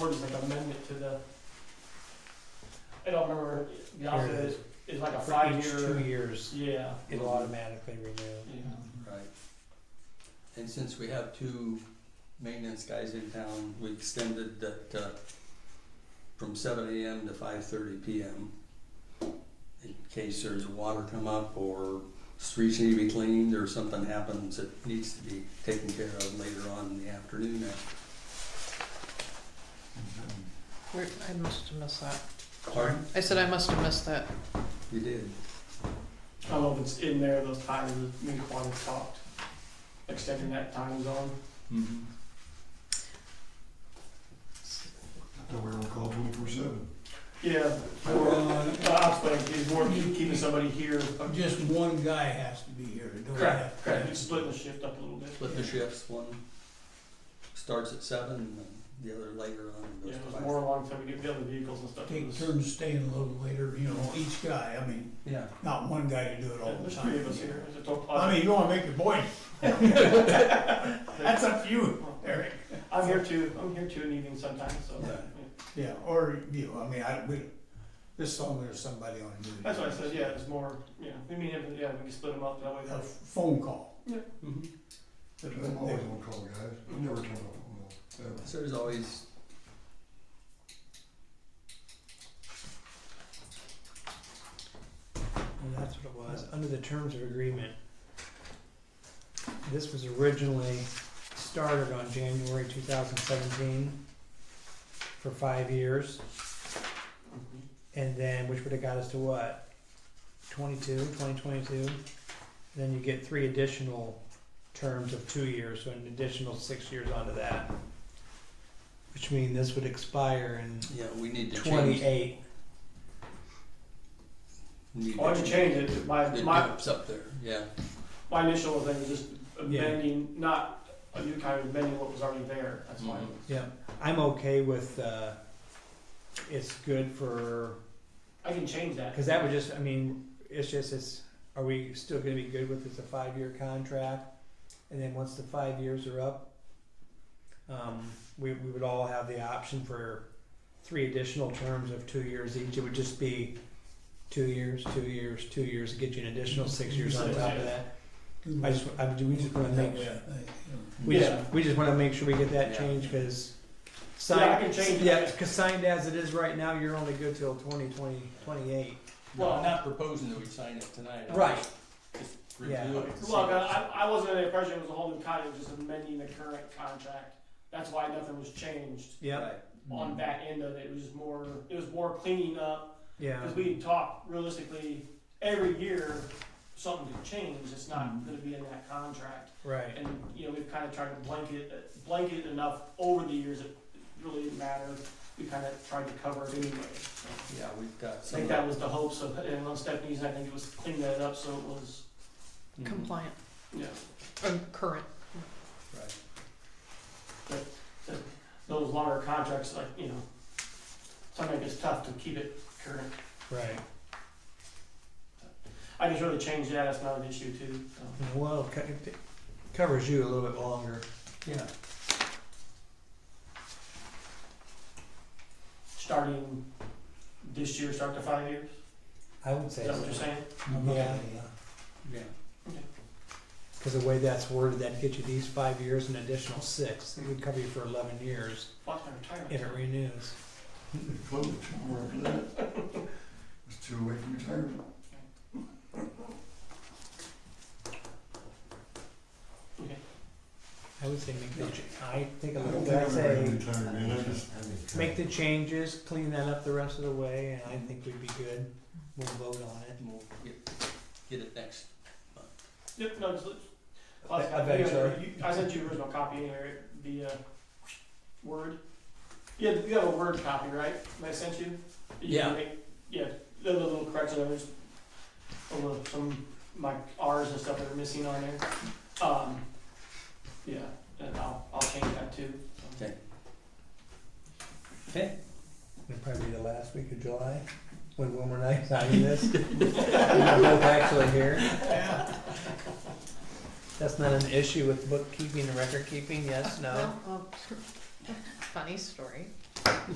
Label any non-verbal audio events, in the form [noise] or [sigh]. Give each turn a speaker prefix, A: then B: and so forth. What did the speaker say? A: word is like amendment to the, I don't remember, the opposite is, is like a
B: For each two
A: five-year,
B: years,
A: yeah,
B: it'll automatically renew.
A: yeah.
C: Right. And since we have two maintenance guys in town, we extended that, uh, from seven AM to five thirty PM. In case there's water come up or streets need to be cleaned or something happens that needs to be taken care of later on in the afternoon.
D: Where, I must have missed that.
C: Pardon?
D: I said I must have missed that.
C: You did.
A: I don't know if it's in there, those times that me and Quan have talked, extending that time zone.
C: Mm-hmm.
E: So we're on call twenty-four seven.
A: Yeah, or, uh, I was thinking, it's more keep- keeping somebody here.
F: Just one guy has to be here, don't have.
A: Correct, correct, you split the shift up a little bit.
C: Split the shifts, one starts at seven and the other later on and
A: Yeah,
C: goes
A: it
C: to
A: was
C: five.
A: more along time we get the other vehicles and stuff. It
F: Take
A: was-
F: turns staying a little later, you know, each guy, I mean,
C: Yeah.
F: not one guy to do it all the
A: There's
F: time.
A: three of us here, it's a total.
F: I mean, you wanna make your point, that's up to you, Eric.
A: I'm here too, I'm here too in the evening sometimes, so.
C: Yeah.
A: yeah.
F: Yeah, or you, I mean, I, we, this song, there's somebody on duty.
A: That's why I said, yeah, it's more, yeah, we mean, if- yeah, we can split them up that way.
F: A phone call.
C: Mm-hmm.
E: I'm always on call, guys. I never turn off, no, ever.
C: So there's always
B: And that's what it was, under the terms of agreement. This was originally started on January two thousand seventeen for five years,
A: Mhm.
B: and then, which would have got us to what? 22, 2022? Then you get three additional terms of two years, so an additional six years onto that. Which means this would expire in
C: Yeah, we need to change.
B: 28.
C: need
A: Why'd
C: to
A: you change it? My,
C: The
A: my,
C: dup's up there, yeah.
A: my initial thing was just
B: Yeah.
A: amending, not a new kind of amending what was already there, that's why.
C: Mhm.
B: Yeah, I'm okay with uh, it's good for
A: I can change that.
B: because that would just I mean it's just it's are we still going to be good with it's a five year contract, and then once the five years are up, um, we we would all have the option for three additional terms of two years each. It would just be two years, two years, two years, get you an additional six years on top of that. I just I, do we just want to make We
A: Yeah.
B: just, we just wanna make sure we get that
C: Yeah.
B: changed, cause.
A: Yeah, I
B: signed
A: can change it.
B: Yeah, cause signed as it is right now, you're only good till twenty twenty, twenty-eight.
A: Well-
C: I'm not proposing that we sign it tonight. I'm
B: Right.
C: just- Just
B: Yeah.
C: review it. and see
A: Well,
C: what's-
A: I, I wasn't under the impression it was a whole new contract, just amending the current contract. That's why nothing was changed
B: Yeah,
C: Right.
A: on that end of it. It was just more, it was more cleaning up.
B: yeah,
A: Cause we talk realistically, every year, something could change. It's not gonna be in that contract.
B: right,
A: And, you know, we've kind of tried to blanket, blanket enough over the years, it really didn't matter. We kind of tried to cover it anyway. so.
C: Yeah, we've got
A: I
C: some.
A: think that was the hope, so, and on Stephanie's, I think it was clean that up, so it was,
C: Mhm.
D: Compliant,
A: yeah.
D: um, current.
C: Right.
A: those longer contracts, like, you know, sometimes it's tough to keep it current.
B: right.
A: I just really changed that, that's not an issue too, Um, so.
B: And Well, it co- it covers you a little bit longer.
C: Yeah,
A: Starting this year, start to five years,
B: I would say,
A: is that what you're
B: so.
A: saying?
B: yeah,
C: yeah.
B: cause the way that's worded, that'd get you these five years and additional six, it would cover you for eleven years
A: What's my retirement?
B: if it renews.
E: Close it tomorrow after that. It's too away from retirement.
A: Okay.
B: I would say make the, ch- I think
E: I
B: a
E: don't
B: little,
E: think
B: I'd
E: I'm ready to
B: say,
E: retire, man. I just.
B: make the changes, clean that up the rest of the way, and I think we'd be good, we'll vote on it.
C: And we'll get, get it next.
A: Yep, no, just,
B: I- I bet it's all right.
A: you- I sent you the original copy anyway, the, uh, Word. You have, you have a Word copy, right, that I sent you? You
C: Yeah.
A: can make- Yeah, the little correction, there's a little, some, my Rs and stuff that are missing on there. Um, yeah, and I'll, I'll change that too. so.
C: Okay. Okay.
B: It'd probably be the last week of July, when Wilmer and I signed this. We're both actually here. That's not an issue with bookkeeping and record keeping, yes, no?
D: Well, um, [laughs] Funny story.